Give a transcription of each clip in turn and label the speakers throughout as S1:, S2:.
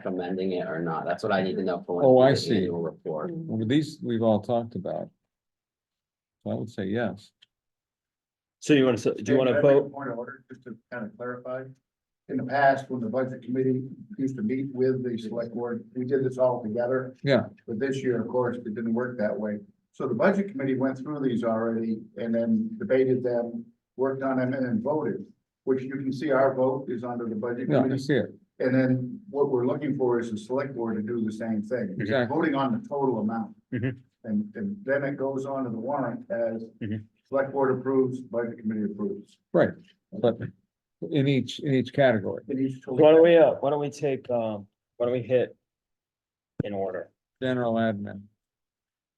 S1: recommending it or not. That's what I need to know for. when
S2: Oh, I
S1: we do the
S2: see.
S1: annual Report.
S3: Mm,
S2: Well, these we've all talked about. So I would say yes.
S4: So you wanna, s- do you
S5: Hey,
S4: wanna
S5: can I make a
S4: vote?
S5: Point of order, just to kind of clarify. In the past, when the budget committee used to meet with the select board, we did this all together.
S2: Yeah.
S5: But this year, of course, it didn't work that way. So the budget committee went through these already and then debated them, worked on them and then voted. Which you can see our vote is under the budget
S2: No, I
S5: committee.
S2: see it.
S5: And then what we're looking for is the select board to do the same thing.
S2: Exactly.
S5: Voting on the total amount.
S4: Mhm.
S5: And, and then it goes on to the warrant as
S4: Mhm.
S5: select board approves, budget committee approves.
S2: Right. But in each, in each category.
S5: It needs to-
S4: Why don't we, uh, why don't we take, um, why don't we hit in order?
S2: General admin.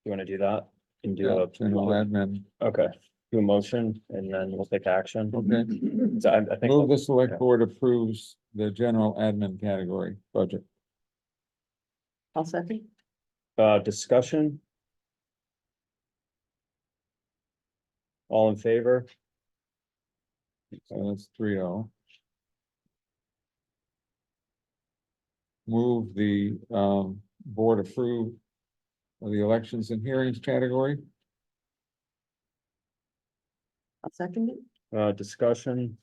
S4: You wanna do that? And do
S2: Yeah,
S4: a,
S2: General admin.
S4: okay, do a motion and then we'll take action.
S2: Okay.
S4: So I, I think,
S2: Move the select board approves the general admin category budget.
S3: I'll second.
S4: uh, discussion. All in favor?
S2: So that's three oh. Move the um board approve of the elections and hearings category.
S3: I'll second it.
S4: Uh, discussion?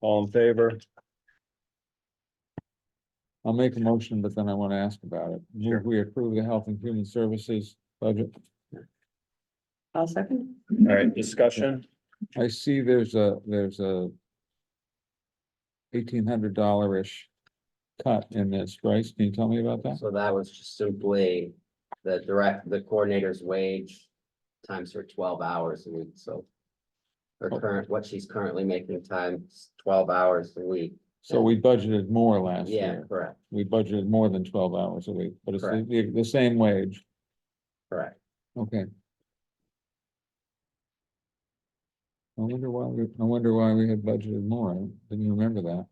S4: All in favor?
S2: I'll make a motion, but then I want to ask about it. Move we approve the health and human services budget.
S3: I'll second.
S4: All right, discussion?
S2: I see there's a, there's a eighteen hundred dollar-ish cut in this, Bryce, can you tell me about that?
S1: So that was just simply the direct, the coordinator's wage times her twelve hours a week, so. Her
S2: Oh.
S1: current, what she's currently making times twelve hours a week.
S2: So we budgeted more last
S1: Yeah,
S2: year.
S1: correct,
S2: We budgeted more than twelve hours a week, but it's the,
S1: Correct.
S2: the- the same wage.
S1: correct.
S2: Okay. I wonder why, we. I wonder why we had budgeted more. I Didn't remember that.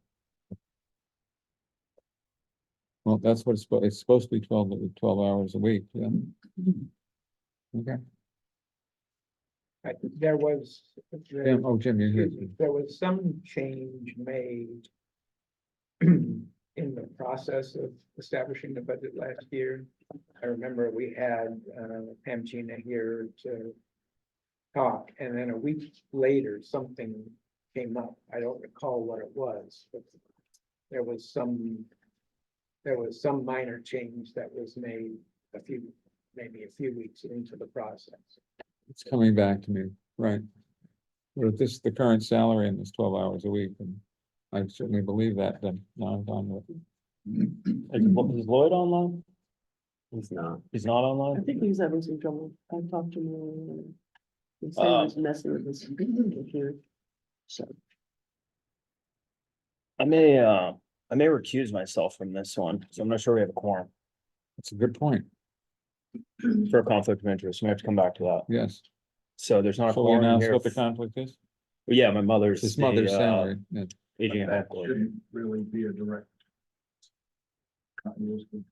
S2: Well, that's what it's, suppo- it's supposed to be 12 but 12 hours a week, yeah. Okay,
S6: I- There was, there
S2: Jim, oh, Jim, you're here.
S6: excuse me, there was some change made in the process of establishing the budget last year. I remember we had uh, Pam Gina here to talk, and then a week later, something came up. I don't recall what it was, but there was some, there was some minor change that was made a few, maybe a few weeks into the process.
S2: It's coming back to me, right. But if this, is the current salary and it's twelve hours a week, and I certainly believe that, then now I'm done with.
S4: Is is Lloyd online?
S1: He's not.
S4: He's not
S3: I
S4: online?
S3: think he was having some trouble. I talked to him. He said he
S4: Uh,
S3: was messing with his computer. So,
S4: I may, uh, I may recuse myself from this one, so I'm not sure we have a quorum
S2: It's a good point,
S4: for a conflict of interest. We have to come back to that.
S2: yes.
S4: So there's not a
S2: So we
S4: quorum
S2: announce
S4: here.
S2: what the conflict is?
S4: Yeah, my mother's.
S2: It's his
S4: the,
S2: mother's
S4: uh,
S2: salary, yeah.
S4: Aging and
S5: That
S4: health lawyer.
S5: shouldn't really be a direct. continuity.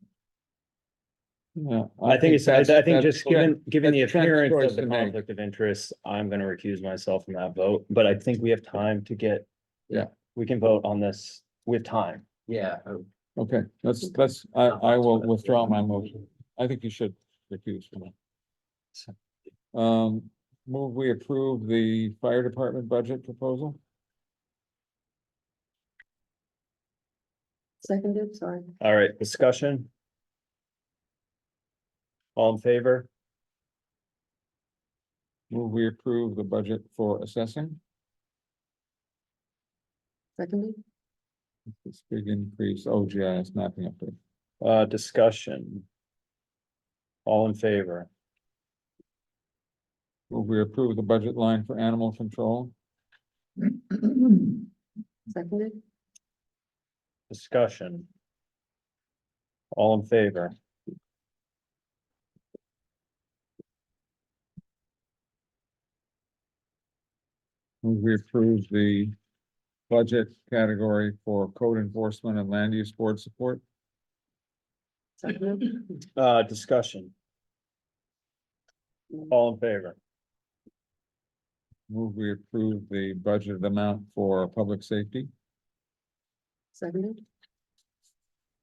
S2: Yeah,
S4: I think it's, I
S2: that's-
S4: I think
S2: that's
S4: just given, given the
S2: that's Trent's
S4: appearance
S2: choice
S4: of the
S2: to make.
S4: conflict of interest, I'm gonna recuse myself from that vote, but I think we have time to get.
S2: Yeah.
S4: We can vote on this with time.
S1: Yeah, oh,
S2: Okay, that's, that's, I, I will withdraw my motion. I think you should recuse from it. Um, move, we approve the fire department budget proposal?
S3: seconded, sorry.
S4: All right, discussion. All in favor?
S2: Move, we approve the budget for assessing?
S3: Seconded,
S2: This big increase, oh OGIS mapping update.
S4: Uh, discussion. All in favor?
S2: Will we approve the budget line for animal control?
S3: seconded,
S4: Discussion. All in favor?
S2: Will we approve the budget category for code enforcement and land use board support?
S3: seconded.
S4: Uh, discussion. All in favor?
S2: Will we approve the budget amount for public safety?
S3: Seconded,